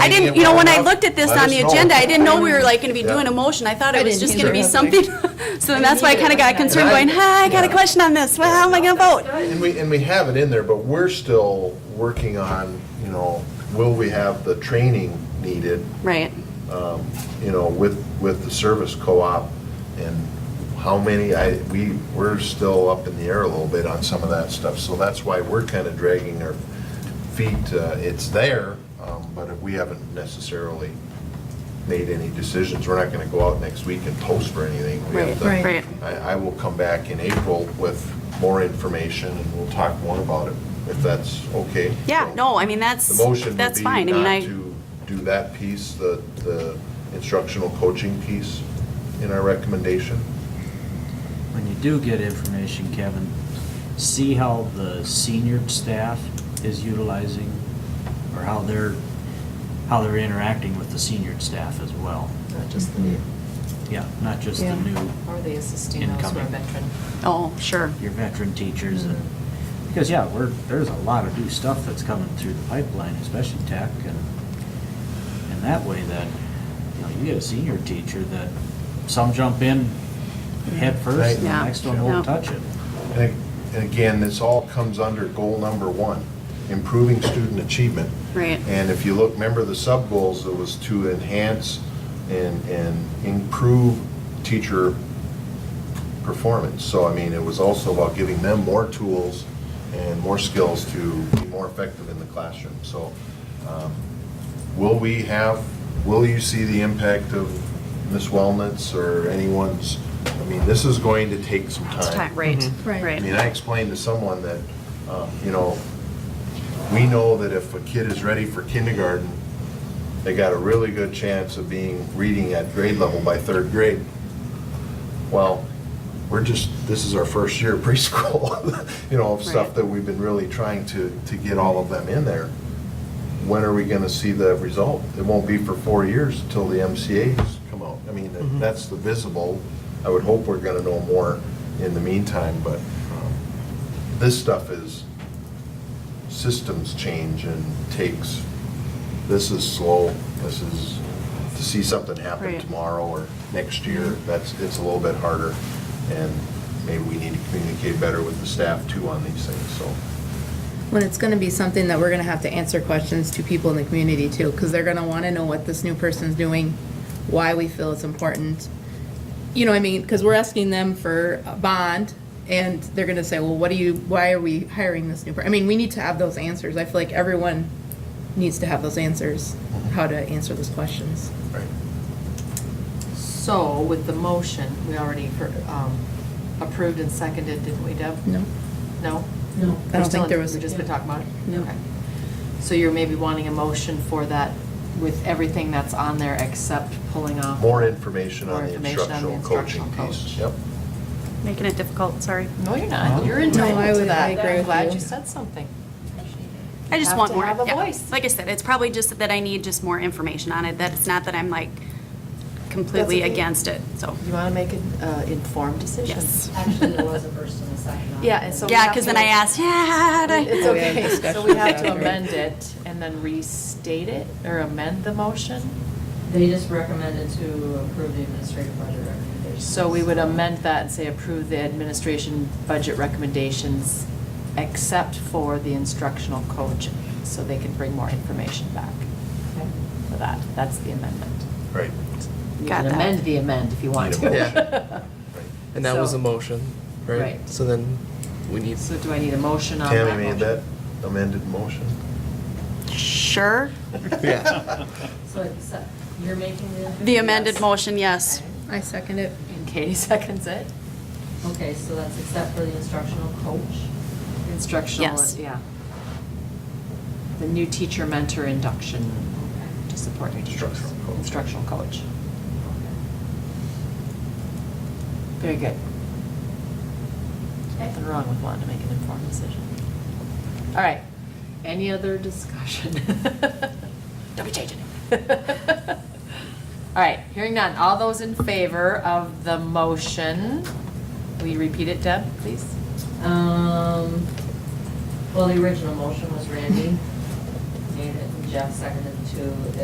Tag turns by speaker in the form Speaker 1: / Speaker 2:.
Speaker 1: I
Speaker 2: Maybe
Speaker 1: didn't,
Speaker 2: it
Speaker 1: you know,
Speaker 2: will
Speaker 1: when I
Speaker 2: enough.
Speaker 1: looked at this
Speaker 2: Let
Speaker 1: on
Speaker 2: us
Speaker 1: the
Speaker 2: know.
Speaker 1: agenda, I didn't know we were like gonna be doing a motion. I thought
Speaker 3: I
Speaker 1: it was
Speaker 3: didn't
Speaker 1: just gonna be
Speaker 3: either.
Speaker 1: something. So then that's why I kinda got concerned
Speaker 2: And I-
Speaker 1: going, hi, I got a question on this. Well, how am I gonna vote?
Speaker 2: And we, and we have it in there, but we're still working on, you know, will we have the training needed,
Speaker 1: Right.
Speaker 2: you know, with, with the service co-op? And how many, I, we, we're still up in the air a little bit on some of that stuff. So that's why we're kind of dragging our feet. Uh, It's there, um, but we haven't necessarily made any decisions. We're not going to go out next week and post for anything. We have to-
Speaker 3: Right.
Speaker 1: Right.
Speaker 2: I, I will come back in April with more information, and we'll talk more about it, if that's okay.
Speaker 1: Yeah, no, I mean, that's,
Speaker 2: The motion would
Speaker 1: that's
Speaker 2: be
Speaker 1: fine. I mean,
Speaker 2: not
Speaker 1: I,
Speaker 2: to do that piece, the, the instructional coaching piece in our recommendation.
Speaker 4: When you do get information, Kevin, see how the senior staff is utilizing, or how they're, how they're interacting with the senior staff as well.
Speaker 3: Not just the new.
Speaker 4: Yeah, not just the
Speaker 3: Yeah.
Speaker 4: new,
Speaker 5: Are they assisting those who are
Speaker 4: Incoming.
Speaker 5: veteran?
Speaker 1: oh, sure.
Speaker 4: your veteran teachers and,
Speaker 3: Mm-hmm.
Speaker 4: because, yeah, we're, there's a lot of new stuff that's coming through the pipeline, especially tech and, and that way that, you know, you get a senior teacher that some jump in head first
Speaker 1: Mm-hmm.
Speaker 4: and
Speaker 1: Yeah.
Speaker 4: the next one
Speaker 1: Yeah.
Speaker 4: won't touch it.
Speaker 2: And ag- and again, this all comes under goal number one, improving student achievement.
Speaker 1: Right.
Speaker 2: And if you look, remember the sub-goals, it was to enhance and, and improve teacher performance. So, I mean, it was also about giving them more tools and more skills to be more effective in the classroom. So, um, will we have, will you see the impact of Miss Wellness or anyone's? I mean, this is going to take some
Speaker 1: It's time, right,
Speaker 3: Right.
Speaker 2: I
Speaker 1: right.
Speaker 2: mean, I explained to someone that, um, you know, we know that if a kid is ready for kindergarten, they got a really good chance of being, reading at grade level by third grade. Well, we're just, this is our first year of preschool, you know, of stuff
Speaker 1: Right.
Speaker 2: that we've been really trying to, to get all of them in there. When are we gonna see the result? It won't be for four years until the MCA's come out. I mean, that's the visible, I would hope we're gonna know more in the meantime, but um, this stuff is, systems change and takes, this is slow, this is, to see something happen
Speaker 1: Right.
Speaker 2: tomorrow or next year,
Speaker 5: Mm-hmm.
Speaker 2: that's, it's a little bit harder. And maybe we need to communicate better with the staff too on these things, so.
Speaker 3: When it's gonna be something that we're gonna have to answer questions to people in the community too, because they're gonna wanna know what this new person's doing, why we feel it's important. You know, what I mean, because we're asking them for a bond, and they're gonna say, well, what do you, why are we hiring this new person? I mean, we need to have those answers. I feel like everyone needs to have those answers, how to answer those questions.
Speaker 2: Right.
Speaker 5: So with the motion, we already heard, um, approved and seconded, didn't we, Deb?
Speaker 3: No?
Speaker 5: No?
Speaker 3: No. I
Speaker 5: We're
Speaker 3: don't
Speaker 5: still
Speaker 3: think
Speaker 5: in-
Speaker 3: there was.
Speaker 5: We've just been talking about it?
Speaker 3: No.
Speaker 5: Okay. So you're maybe wanting a motion for that with everything that's on there except pulling off?
Speaker 2: More information on
Speaker 5: More
Speaker 2: the
Speaker 5: information on the
Speaker 2: instructional coaching
Speaker 5: instructional
Speaker 2: piece.
Speaker 5: coach.
Speaker 2: Yep.
Speaker 1: Making it difficult, sorry.
Speaker 5: No, you're not. You're
Speaker 3: No, I
Speaker 5: entitled to
Speaker 3: would- I
Speaker 5: that.
Speaker 3: agree
Speaker 5: I'm
Speaker 3: with
Speaker 5: glad
Speaker 3: you.
Speaker 5: you said something.
Speaker 1: I just
Speaker 5: Have
Speaker 1: want
Speaker 5: to
Speaker 1: more.
Speaker 5: have a
Speaker 1: yeah.
Speaker 5: voice.
Speaker 1: Like I said, it's probably just that I need just more information on it, that it's not that I'm like completely
Speaker 5: okay.
Speaker 1: against it, so.
Speaker 5: You want to make an uh, informed decision?
Speaker 1: Yes.
Speaker 6: Actually, there was a first and a second on it.
Speaker 5: Yeah, and so- we
Speaker 1: Yeah,
Speaker 5: have
Speaker 1: because
Speaker 5: to-
Speaker 1: then I asked, yeah, how do I-"
Speaker 5: It's
Speaker 3: We had
Speaker 5: okay, so
Speaker 3: discussions
Speaker 5: we have to
Speaker 3: after.
Speaker 5: amend it and then restate it or amend the motion?
Speaker 6: They just recommended to approve the administrative budget recommendation.
Speaker 5: So we would amend that and say approve the administration budget recommendations except for the instructional coach, so they can bring more information back
Speaker 6: Okay.
Speaker 5: for that. That's the amendment.
Speaker 2: Right.
Speaker 5: You
Speaker 1: Got
Speaker 5: can
Speaker 1: that.
Speaker 5: amend the amend if you want
Speaker 2: Need a
Speaker 5: to.
Speaker 7: And that was
Speaker 5: So-
Speaker 7: a motion, right?
Speaker 5: Right.
Speaker 7: So then we need,
Speaker 5: So do I need a motion on that?
Speaker 2: Tammy made
Speaker 5: motion?
Speaker 2: that amended motion.
Speaker 1: Sure.
Speaker 7: yeah,
Speaker 6: So it's, uh, you're making the.
Speaker 1: The amended
Speaker 5: Yes.
Speaker 1: motion, yes.
Speaker 3: I second it.
Speaker 5: And Katie seconds it.
Speaker 6: Okay, so that's except for the instructional coach.
Speaker 5: Instructional,
Speaker 1: Yes.
Speaker 5: yeah. The new teacher mentor induction to support new teachers.
Speaker 2: Instructional coach.
Speaker 5: Instructional coach.
Speaker 6: Okay.
Speaker 5: Very good. Nothing wrong with wanting to make an informed decision. All right, any other discussion? Don't be changing it. All right, hearing none, all those in favor of the motion, will you repeat it, Deb, please?
Speaker 6: Um, well, the original motion was Randy made it, and Jeff seconded to